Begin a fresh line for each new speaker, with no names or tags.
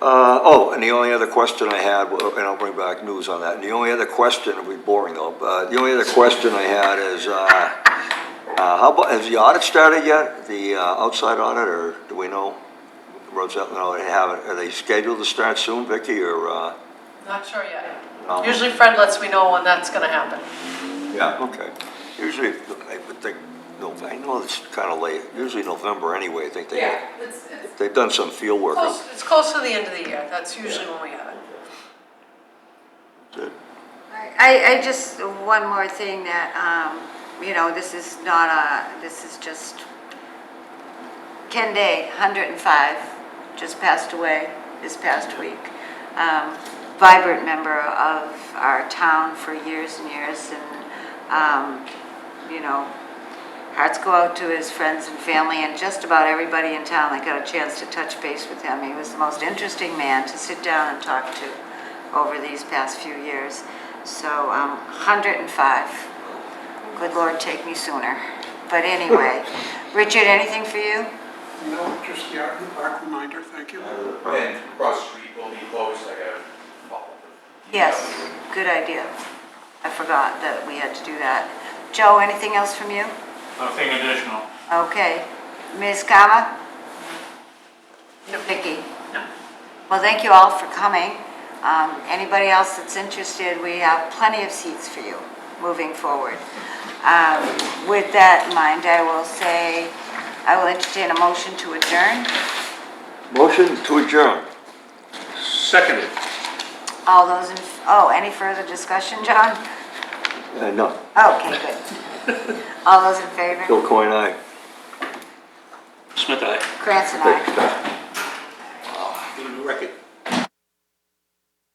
Uh, oh, and the only other question I had, well, and I'll bring back news on that, and the only other question, it'll be boring though, but the only other question I had is, uh, uh, how about, has the audit started yet? The, uh, outside audit, or do we know? Roads up, no, they haven't, are they scheduled to start soon, Vicky, or, uh?
Not sure yet.
no?
Usually Fred lets me know when that's gonna happen.
Yeah, okay. Usually, I would think, no, I know it's kind of late, usually November anyway, I think they,
It's, it's
they've done some field work.
close, it's close to the end of the year, that's usually when we have it.
Good.
I, I just, one more thing that, um, you know, this is not a, this is just, Ken Day, 105, just passed away this past week. Um, Vibrant member of our town for years and years, and, um, you know, hearts go out to his friends and family and just about everybody in town that got a chance to touch base with him. He was the most interesting man to sit down and talk to over these past few years. So, um, 105. Good Lord, take me sooner. But anyway, Richard, anything for you?
No, just, yeah, back reminder, thank you.
And Cross Street will be closed, I gotta follow.
Yes, good idea. I forgot that we had to do that. Joe, anything else from you?
Nothing additional.
Okay. Ms. Kama? Vicky? Well, thank you all for coming. Um, Anybody else that's interested, we have plenty of seats for you moving forward. Um, With that in mind, I will say, I will entertain a motion to adjourn.
Motion to adjourn.
Seconded.
All those, in oh, any further discussion, John?
Uh, no,
Okay, good. All those in favor?
Bill Coyne, aye.
Smith, aye.
Krantz and I.
Record.